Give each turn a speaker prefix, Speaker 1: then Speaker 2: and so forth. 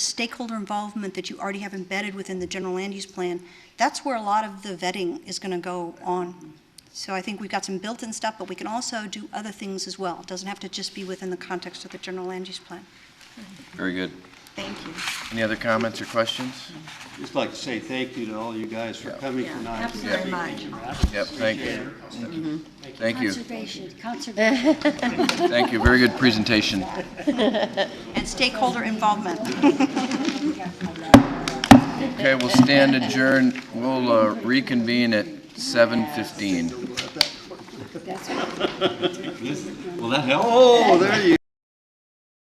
Speaker 1: stakeholder involvement that you already have embedded within the general land use plan, that's where a lot of the vetting is going to go on. So I think we've got some built-in stuff, but we can also do other things as well. It doesn't have to just be within the context of the general land use plan.
Speaker 2: Very good.
Speaker 1: Thank you.
Speaker 2: Any other comments or questions?
Speaker 3: Just like to say thank you to all you guys for coming
Speaker 4: Yeah,
Speaker 3: tonight.
Speaker 4: absolutely.
Speaker 2: Yep, thank you. Thank you,
Speaker 4: Conservation, conservation.
Speaker 2: thank you. Very good presentation.
Speaker 1: And stakeholder involvement.
Speaker 2: Okay, we'll stand adjourned. We'll uh, reconvene at 7:15.
Speaker 4: That's what
Speaker 3: Well, that helped. Oh, there you